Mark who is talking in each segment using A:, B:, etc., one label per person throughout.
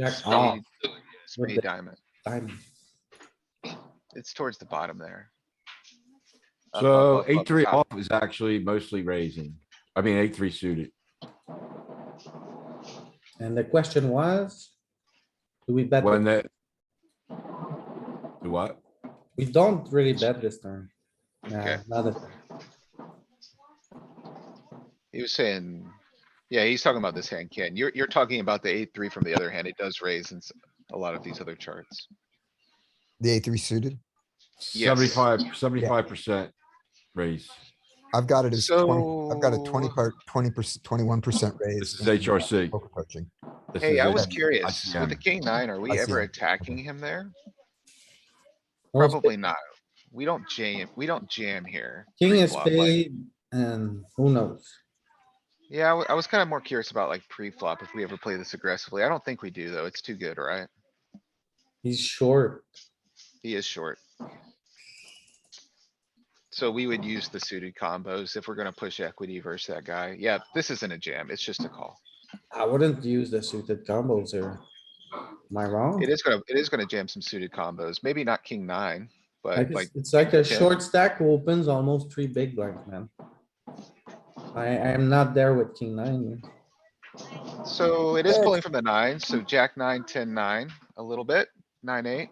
A: Jack off,
B: Spade
A: with
B: spade
A: the-
B: diamond.
A: diamond.
B: It's towards the bottom there. Up, up,
C: So
B: up,
C: eight,
B: up
C: three
B: top.
C: off is actually mostly raising. I mean, eight, three suited.
A: And the question was? Do we bet?
C: When that. Do what?
A: We don't really bet this turn. Nah,
B: Okay.
A: not a-
B: He was saying, yeah, he's talking about this hand, Ken. You're, you're talking about the eight, three from the other hand. It does raise in s- a lot of these other charts.
D: The A three suited.
B: Yes.
C: Seventy-five, seventy-five percent raise.
D: I've got it as twenty, I've got a twenty
B: So-
D: part, twenty percent, twenty-one percent raise.
C: This is
D: in
C: HRC.
D: poker coaching.
C: This
B: Hey,
C: is
B: I
C: it.
B: was
D: it.
B: curious, with the
C: ICM.
B: king nine, are we ever
D: ICM.
B: attacking him there?
A: No, it's
B: Probably not. We don't jam, we don't jam here.
A: King is
B: pre-flop, like-
A: paid and who knows?
B: Yeah, I w- I was kinda more curious about like pre-flop, if we ever play this aggressively. I don't think we do, though. It's too good, right?
A: He's short.
B: He is short. So we would use the suited combos if we're gonna push equity versus that guy. Yeah, this isn't a jam. It's just a call.
A: I wouldn't use the suited combos here. Am I wrong?
B: It is gonna, it is gonna jam some suited combos. Maybe not king nine,
A: I
B: but
A: just-
B: uh, like,
A: It's like a
B: yeah.
A: short stack who opens almost three big blinds, man. I, I am not there with king nine.
B: so it is pulling from the nine. So jack nine, ten, nine, a little bit, nine, eight.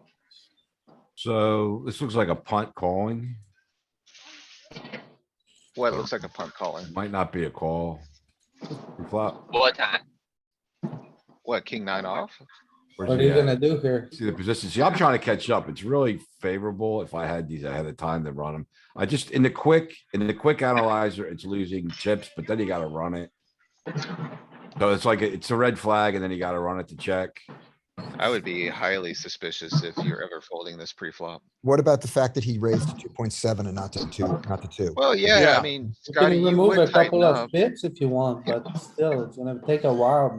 C: So this looks like a punt calling.
B: What looks like a punt calling.
C: Might not be a call. Flop.
E: What time?
B: What, king nine off?
C: Where's
A: What are
C: he
A: you
C: at?
A: gonna do here?
C: See the position. See, I'm trying to catch up. It's really favorable if I had these ahead of time to run them. I just, in the quick, in the quick analyzer, it's losing chips, but then you gotta run it. So it's like, it's a red flag and then you gotta run it to check. Oh,
B: I would be highly suspicious if you're ever folding this pre-flop.
D: What about the fact that he raised to two point seven and not to two, not to two?
B: Well, yeah,
C: Yeah.
B: I mean,
A: You
B: Scotty,
A: can
B: you
A: remove a
B: would tighten
A: couple
B: up.
A: of pips if you want, but still, it's gonna take a while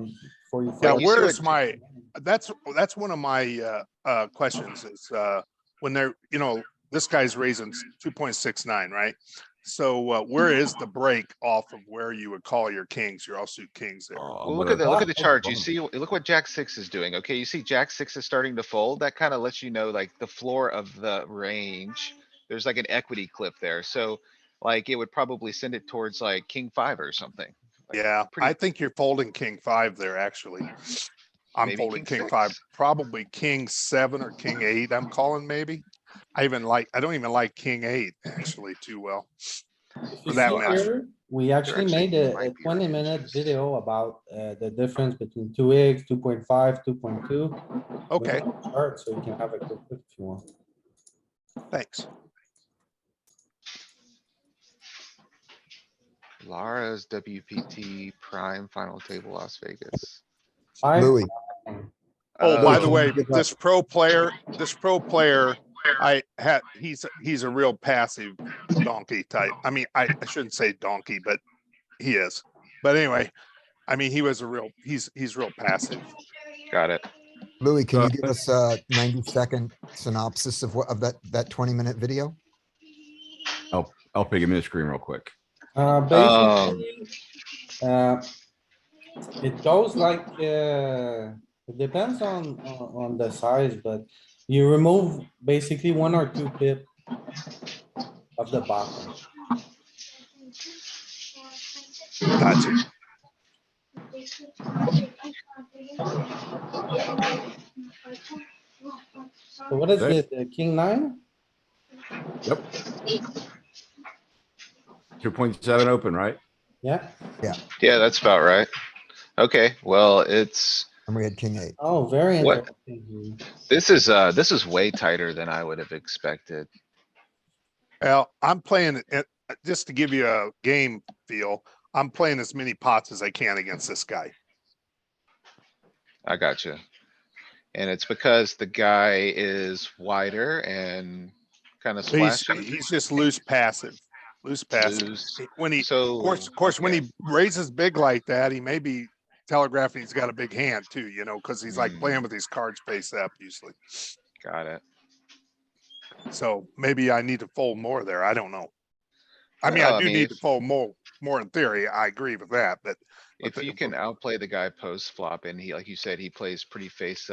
A: before you.
F: Yeah,
B: you
F: where
B: should.
F: is my, that's, that's one of my, uh, uh, questions is, uh, when they're, you know, this guy's raising two point six nine, right? So, uh, where is the break off of where you would call your kings, your offsuit kings there?
C: Oh,
B: Well, look
C: what
B: at
C: a-
B: the, look at the
C: what a
B: chart. You
C: bummer.
B: see, look what jack six is doing. Okay, you see jack six is starting to fold. That kind of lets you know like the floor of the range. There's like an equity clip there. So like it would probably send it towards like king five or something.
F: Yeah,
B: pretty-
F: I think you're folding king five there, actually. I'm
B: Maybe
F: folding
B: king
F: king five,
B: six.
F: probably king seven or king eight, I'm calling maybe. I even like, I don't even like king eight actually too well.
A: If you
F: for that
A: see
F: matter.
A: here, We actually
B: actually
A: made a- a
B: might be
A: twenty minute
B: ranges.
A: video about uh, the difference between two X, two point five, two point two.
F: Okay,
A: Alright, so you can have a quick look if you want.
F: thanks.
B: Lara's WPT prime final table Las Vegas.
A: Five, Uh,
D: Louis,
F: Oh, by the
B: Uh,
F: way,
D: Give up.
F: this pro player, this pro player, I had, he's, he's a real passive donkey type. I mean, I, I shouldn't say donkey, but he is. But anyway, I mean, he was a real, he's, he's real passive.
B: Got it.
D: Louis, can you
C: Uh,
D: give us a ninety second synopsis of what, of that, that twenty minute video?
C: I'll pick him in the screen real quick.
A: uh,
B: Um,
A: basically, uh, it goes like, uh, it depends on, on on the size, but you remove basically one or two pip of the bottom.
F: Gotcha.
A: So what is
C: Okay.
A: it, uh, king nine?
C: Two point seven open, right?
A: Yeah,
B: Yeah, that's about right. Okay, well, it's,
D: And we had king eight.
A: oh, very
B: What?
A: interesting.
B: this is, uh, this is way tighter than I would have expected.
F: Well, I'm playing it, just to give you a game feel, I'm playing as many pots as I can against this guy.
B: I gotcha. And it's because the guy is wider and kinda
F: So He's,
B: splashy.
F: he's just loose passive, loose passive.
B: loose.
F: When he,
B: So.
F: of course, of course, when
B: okay.
F: he raises big like that, he may be telegraphing he's got a big hand too, you know, because he's like playing with his cards face up usually.
B: Got it.
F: So maybe I need to fold more there. I don't know. I mean,
B: Well,
F: I
B: I
F: do
B: mean,
F: need to
B: if-
F: fold more, more in theory. I agree with that, but
B: If
E: Okay,
B: you
E: but-
B: can outplay the guy post flop and he, like you said, he plays pretty face